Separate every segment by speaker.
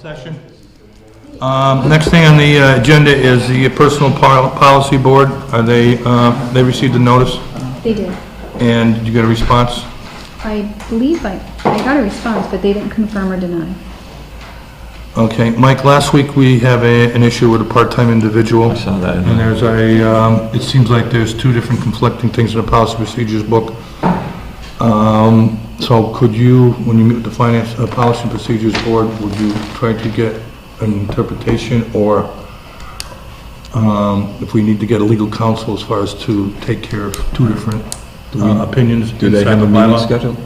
Speaker 1: session. Um, Next thing on the uh, agenda is the Personal Pol- Policy Board. Are they, uh, they received a notice,
Speaker 2: They did.
Speaker 1: and did you get a response?
Speaker 2: I believe I, I got a response, but they didn't confirm or deny.
Speaker 1: Okay, Mike, last week we have a, an issue with a part-time individual.
Speaker 3: I saw that.
Speaker 1: And there's a, um, it seems like there's two different conflicting things in the policy procedures book. Um, so could you, when you meet with the finance, uh, policy and procedures board, would you try to get an interpretation or, um, if we need to get a legal counsel as far as to take care of two different uh, opinions
Speaker 3: Do they
Speaker 1: inside
Speaker 3: have a
Speaker 1: the
Speaker 3: meeting
Speaker 1: bylaw?
Speaker 3: scheduled?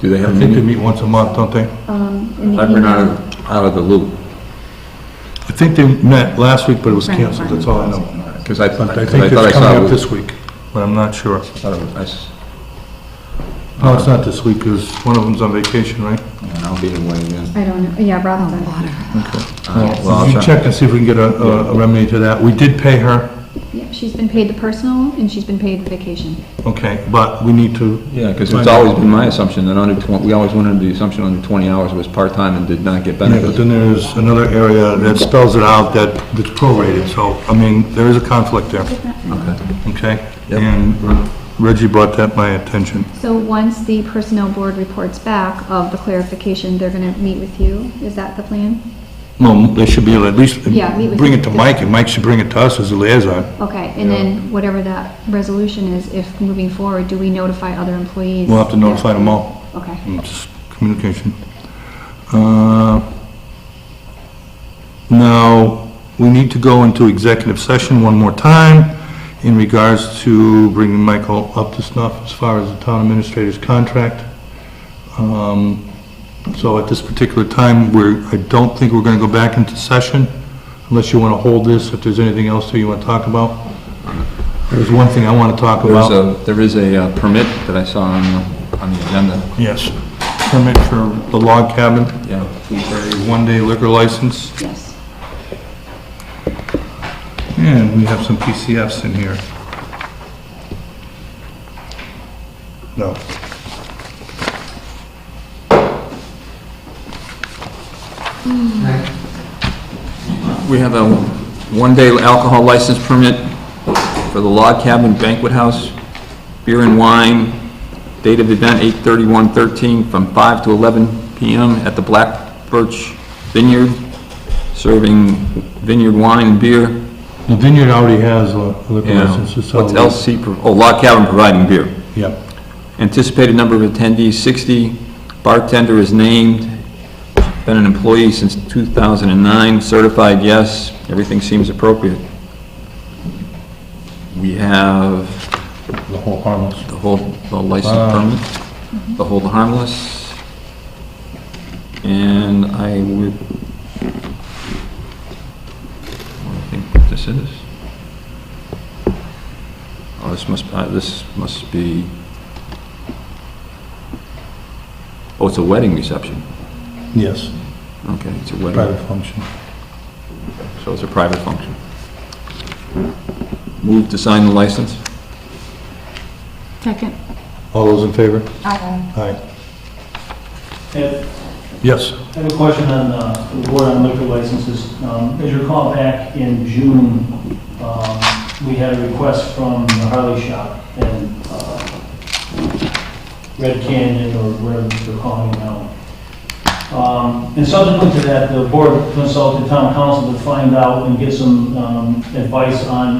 Speaker 3: Do they have
Speaker 1: I
Speaker 3: a
Speaker 1: think they
Speaker 3: meeting?
Speaker 1: meet once a month, don't they?
Speaker 2: Um, in the
Speaker 3: I've been out
Speaker 2: email.
Speaker 3: of, out of the loop,
Speaker 1: I think they met last week, but it was
Speaker 2: Right.
Speaker 1: canceled, that's all I know.
Speaker 3: because I thought,
Speaker 1: But I
Speaker 3: I
Speaker 1: think
Speaker 3: thought I
Speaker 1: it's coming up
Speaker 3: saw,
Speaker 1: this week, but I'm not sure.
Speaker 3: I thought it was- I s-
Speaker 1: No, it's not this week, because one of them's on vacation, right?
Speaker 3: and I'll be away again.
Speaker 2: I don't know, yeah, Rob's on it.
Speaker 3: Uh, Well,
Speaker 1: We
Speaker 3: I'll
Speaker 1: can
Speaker 3: try,
Speaker 1: check and see if we can get a- a a remedy to that. We did pay her,
Speaker 2: Yeah, she's been paid the personal and she's been paid the vacation.
Speaker 1: okay, but we need to,
Speaker 3: yeah, because it's always been my assumption that under twen, we always went under the assumption under twenty hours was part-time and did not get
Speaker 1: yeah, but
Speaker 3: benefits.
Speaker 1: then there's another area that spells it out that that's prorated, so, I mean, there is a conflict there,
Speaker 3: Okay.
Speaker 1: okay?
Speaker 3: Yep.
Speaker 1: And Reggie brought that my attention.
Speaker 2: So once the personnel board reports back of the clarification, they're gonna meet with you. Is that the plan?
Speaker 1: Well, they should be able to at least
Speaker 2: Yeah, we would-
Speaker 1: bring it to Mike, and Mike should bring it to us as a liaison.
Speaker 2: Okay, and then whatever that resolution is, if moving forward, do we notify other employees?
Speaker 1: We'll have to notify them all.
Speaker 2: Okay.
Speaker 1: Mm, Just communication. Uh, Now, we need to go into executive session one more time in regards to bringing Michael up to snuff as far as the town administrator's contract. Um, So at this particular time, we're, I don't think we're going to go back into session unless you want to hold this, if there's anything else that you want to talk about. There's one thing I want to talk about.
Speaker 3: There's a, there is a uh, permit that I saw on, the- on the agenda,
Speaker 1: Yes. Permit for the log cabin.
Speaker 3: yeah.
Speaker 1: a one-day liquor license,
Speaker 2: Yes.
Speaker 1: and we have some PCFs in here. No.
Speaker 3: We have a one-day alcohol license permit for the Log Cabin Banquet House, beer and wine, date of event 8/31/13, from 5 to 11 PM at the Black Birch Vineyard, serving vineyard wine and beer.
Speaker 1: The vineyard already has a liquor
Speaker 3: Yeah.
Speaker 1: license. it's
Speaker 3: What's
Speaker 1: all-
Speaker 3: LC, pro- oh, Log Cabin providing beer.
Speaker 1: Yep.
Speaker 3: Anticipated number of attendees, 60. Bartender is named. Been an employee since 2009. Certified, yes. Everything seems appropriate. We have
Speaker 1: The whole harmless.
Speaker 3: the hold, the
Speaker 1: Wow.
Speaker 3: license permit, the hold harmless. And I would, I think what this is. Oh, this must, uh, this must be, oh, it's a wedding reception.
Speaker 1: Yes,
Speaker 3: Okay, it's a wedding,
Speaker 1: private function.
Speaker 3: so it's a private function. Move to sign the license?
Speaker 2: Second.
Speaker 1: All those in favor?
Speaker 2: Aye.
Speaker 1: Aye.
Speaker 4: Ed,
Speaker 1: Yes.
Speaker 4: I have a question on, uh, the board on liquor licenses. Um, As you recall, back in June, um, we had a request from the Harley Shop and uh, Red Canyon, or whatever they're calling it now. Um, And subsequent to that, the board consulted town council to find out and get some um, advice on